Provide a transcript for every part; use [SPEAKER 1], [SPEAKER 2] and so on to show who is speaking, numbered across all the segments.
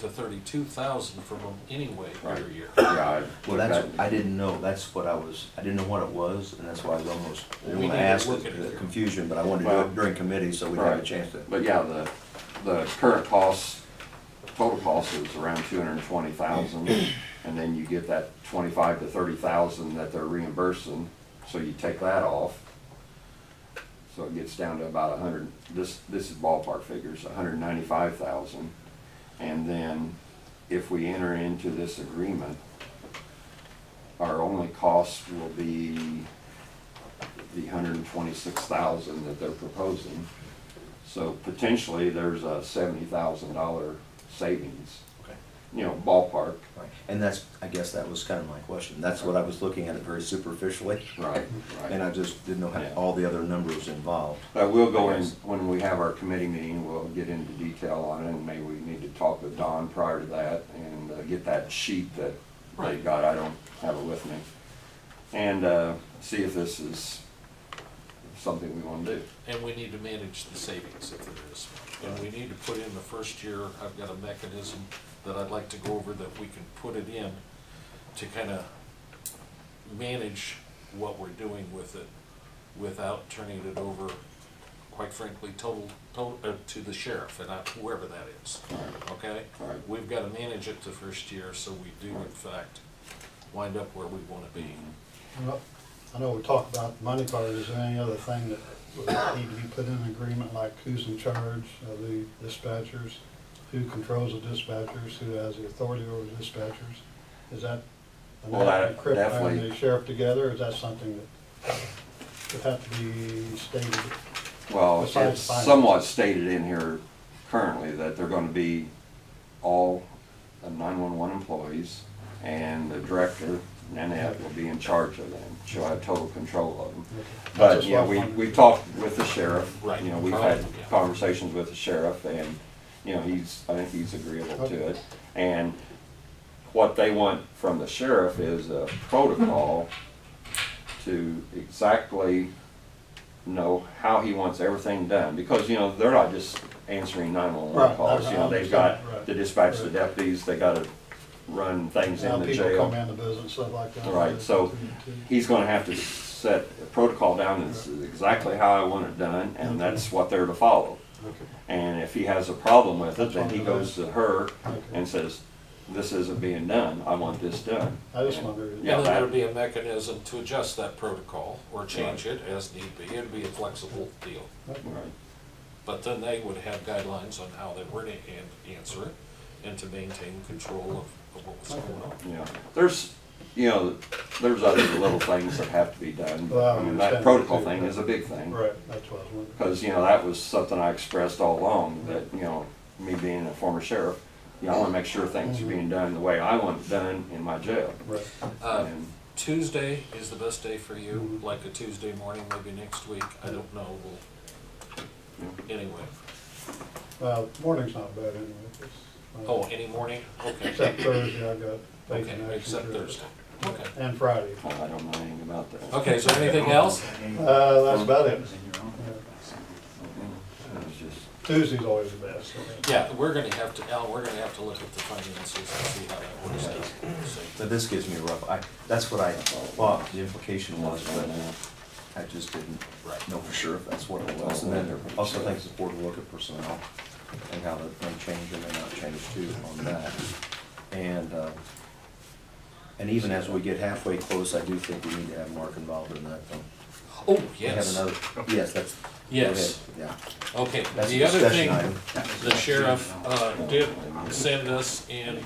[SPEAKER 1] to thirty-two thousand from them anyway
[SPEAKER 2] Right.
[SPEAKER 1] every year.
[SPEAKER 2] Yeah, I
[SPEAKER 3] Well,
[SPEAKER 2] looked
[SPEAKER 3] that's,
[SPEAKER 2] at-
[SPEAKER 3] I didn't know, that's what I was, I didn't know what it was, and that's why I was almost,
[SPEAKER 1] We
[SPEAKER 3] I didn't wanna
[SPEAKER 1] need to
[SPEAKER 3] ask
[SPEAKER 1] look at
[SPEAKER 3] the
[SPEAKER 1] it.
[SPEAKER 3] the confusion, but I wanted to do
[SPEAKER 2] Well-
[SPEAKER 3] it during committee, so we'd have a
[SPEAKER 2] Right.
[SPEAKER 3] chance to.
[SPEAKER 2] But yeah, the, the current cost, total cost is around two hundred and twenty thousand, and then you get that twenty-five to thirty thousand that they're reimbursing, so you take that off. So it gets down to about a hundred, this, this is ballpark figures, hundred and ninety-five thousand. And then if we enter into this agreement, our only cost will be the hundred and twenty-six thousand that they're proposing. So potentially, there's a seventy thousand dollar savings,
[SPEAKER 3] Okay.
[SPEAKER 2] you know, ballpark.
[SPEAKER 3] Right. And that's, I guess that was kind of my question, that's what I was looking at it very superficially,
[SPEAKER 2] Right.
[SPEAKER 3] and I just didn't know how,
[SPEAKER 2] Yeah.
[SPEAKER 3] all the other numbers involved.
[SPEAKER 2] But we'll go in, when we have our committee meeting, we'll get into detail on it, and maybe we need to talk with Don prior to that and uh, get that sheet that they
[SPEAKER 1] Right.
[SPEAKER 2] got, I don't have it with me. And, uh, see if this is something we wanna do.
[SPEAKER 1] And we need to manage the savings if there is. And we need to put in the first year, I've got a mechanism that I'd like to go over that we can put it in to kind of manage what we're doing with it without turning it over, quite frankly, total, total, uh, to the sheriff and not whoever that is, okay?
[SPEAKER 2] Right.
[SPEAKER 1] We've got to manage it the first year so we do in fact wind up where we want to be.
[SPEAKER 4] Well, I know we talked about the money part, is there any other thing that would need to be put in an agreement, like who's in charge of the dispatchers? Who controls the dispatchers, who has the authority over the dispatchers? Is that, and
[SPEAKER 2] Well, that
[SPEAKER 4] that Crip and
[SPEAKER 2] definitely-
[SPEAKER 4] the sheriff together, or is that something that would have to be stated?
[SPEAKER 2] Well,
[SPEAKER 4] Besides
[SPEAKER 2] it's
[SPEAKER 4] finance.
[SPEAKER 2] somewhat stated in here currently that they're gonna be all nine-one-one employees, and the director, Nanette, will be in charge of them. She'll have total control of them. But, yeah, we, we talked with the sheriff.
[SPEAKER 1] Right.
[SPEAKER 2] You know, we've had
[SPEAKER 1] Yeah.
[SPEAKER 2] conversations with the sheriff, and, you know, he's, I think he's agreeable to it. And what they want from the sheriff is a protocol to exactly know how he wants everything done, because, you know, they're not just answering nine-one-one
[SPEAKER 4] Right,
[SPEAKER 2] calls,
[SPEAKER 4] I-
[SPEAKER 2] you
[SPEAKER 4] I
[SPEAKER 2] know, they've
[SPEAKER 4] understand,
[SPEAKER 2] got
[SPEAKER 4] right,
[SPEAKER 2] to dispatch the
[SPEAKER 4] right.
[SPEAKER 2] deputies, they gotta run things in
[SPEAKER 4] Now
[SPEAKER 2] the
[SPEAKER 4] people come
[SPEAKER 2] jail.
[SPEAKER 4] in the business, stuff like that.
[SPEAKER 2] Right, so he's gonna have to set a protocol down, this is exactly how I want it done, and that's what they're to follow.
[SPEAKER 4] Okay.
[SPEAKER 2] And if he has a problem with it,
[SPEAKER 4] That's
[SPEAKER 2] then
[SPEAKER 4] what
[SPEAKER 2] he
[SPEAKER 4] it
[SPEAKER 2] goes
[SPEAKER 4] is.
[SPEAKER 2] to her
[SPEAKER 4] Okay.
[SPEAKER 2] and says, this isn't being done, I want this done.
[SPEAKER 4] I just wonder.
[SPEAKER 2] Yeah,
[SPEAKER 1] And then
[SPEAKER 2] that-
[SPEAKER 1] there'd be a mechanism to adjust that protocol or change it as need be. It'd be a flexible deal.
[SPEAKER 2] Right.
[SPEAKER 1] But then they would have guidelines on how they were to an- answer it and to maintain control of, of what was going on.
[SPEAKER 2] Yeah, there's, you know, there's other little things that have to be done,
[SPEAKER 4] Well,
[SPEAKER 2] but
[SPEAKER 4] I
[SPEAKER 2] I mean, that
[SPEAKER 4] understand
[SPEAKER 2] protocol
[SPEAKER 4] that too.
[SPEAKER 2] thing is a big thing.
[SPEAKER 4] Right, that's what I was wondering.
[SPEAKER 2] Because, you know, that was something I expressed all along, that, you know, me being a former sheriff, you know, I wanna make sure
[SPEAKER 4] Mm-hmm.
[SPEAKER 2] things are being done the way I want it done in my jail.
[SPEAKER 4] Right.
[SPEAKER 1] Uh,
[SPEAKER 2] And,
[SPEAKER 1] Tuesday is the best day for you,
[SPEAKER 4] Mhm.
[SPEAKER 1] like a Tuesday morning, maybe next week. I don't know.
[SPEAKER 2] you know,
[SPEAKER 1] We'll, anyway.
[SPEAKER 4] Well, morning's not bad anyway. it's, uh,
[SPEAKER 1] Oh, any morning? Okay.
[SPEAKER 4] Except Thursday, I got bacon
[SPEAKER 1] Okay,
[SPEAKER 4] action.
[SPEAKER 1] except
[SPEAKER 4] Thursday.
[SPEAKER 1] Thursday. Okay.
[SPEAKER 4] And Friday.
[SPEAKER 2] I don't know anything about that.
[SPEAKER 1] Okay, is there anything else?
[SPEAKER 4] Uh, that's about it.
[SPEAKER 2] It was just,
[SPEAKER 4] Tuesday's always the best.
[SPEAKER 1] Yeah, we're gonna have to, Alan, we're gonna have to look at the finances and see how that works out. So-
[SPEAKER 3] So this gives me a rough, I, that's what I thought the implication was, but I just didn't
[SPEAKER 1] Right.
[SPEAKER 3] know for sure if that's what it was. And then also thanks the board to look at personnel and how that may change or may not change too on that. And, uh, and even as we get halfway close, I do think we need to have Mark involved in that though.
[SPEAKER 1] Oh,
[SPEAKER 3] We have
[SPEAKER 1] yes.
[SPEAKER 3] another- Yes, that's. go
[SPEAKER 1] Yes.
[SPEAKER 3] ahead, Yeah.
[SPEAKER 1] Okay,
[SPEAKER 3] That's a
[SPEAKER 1] the other thing,
[SPEAKER 3] discussion item.
[SPEAKER 1] the sheriff uh, did send us, and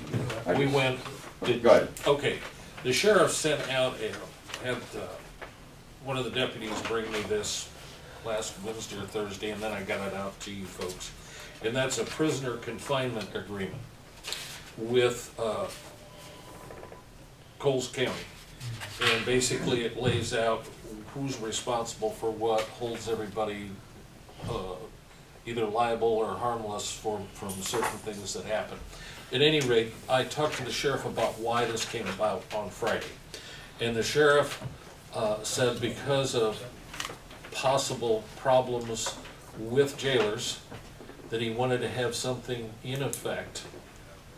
[SPEAKER 1] we went, did,
[SPEAKER 2] Go ahead.
[SPEAKER 1] okay, the sheriff sent out a, had, uh, one of the deputies bring me this last Wednesday or Thursday, and then I got it out to you folks. And that's a prisoner confinement agreement with uh, Coles County. And basically, it lays out who's responsible for what, holds everybody uh, either liable or harmless for, from certain things that happen. At any rate, I talked to the sheriff about why this came about on Friday. And the sheriff uh, said because of possible problems with jailers, that he wanted to have something in effect